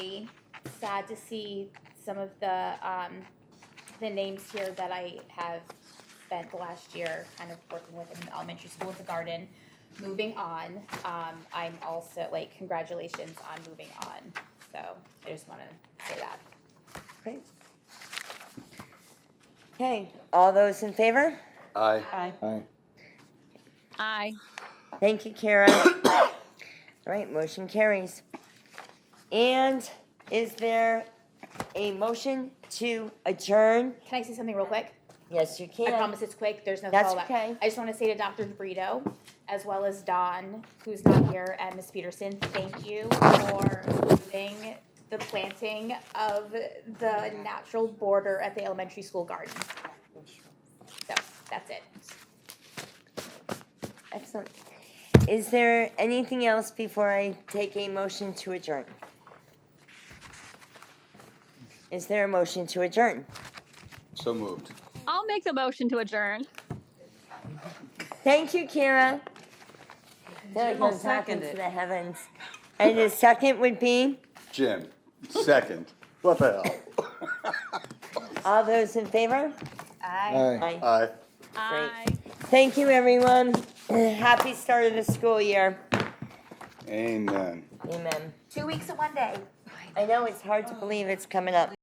sad to see some of the, um, the names here that I have spent the last year kind of working with in elementary school at the garden. Moving on, um, I'm also, like, congratulations on moving on, so I just wanna say that. Great. Okay, all those in favor? Aye. Aye. Aye. Thank you, Kara. All right, motion carries. And is there a motion to adjourn? Can I say something real quick? Yes, you I can. promise it's quick. There's no That's follow-up. okay. I just want to say to Dr. DeBrito, as well as Don, who's not here, and Ms. Peterson, thank you for moving the planting of the natural border at the elementary school garden. So that's it. Excellent. Is there anything else before I take a motion to adjourn? Is there a motion to adjourn? So moved. I'll make the motion to adjourn. Thank you, Kira. That goes up into the heavens. And the second would be, Jim, second. What the hell? all those in favor? Aye. Aye. Aye. Aye. Thank you, everyone. Happy start of the school year. Amen. Amen. Two weeks and one day. I know it's hard to believe it's coming up.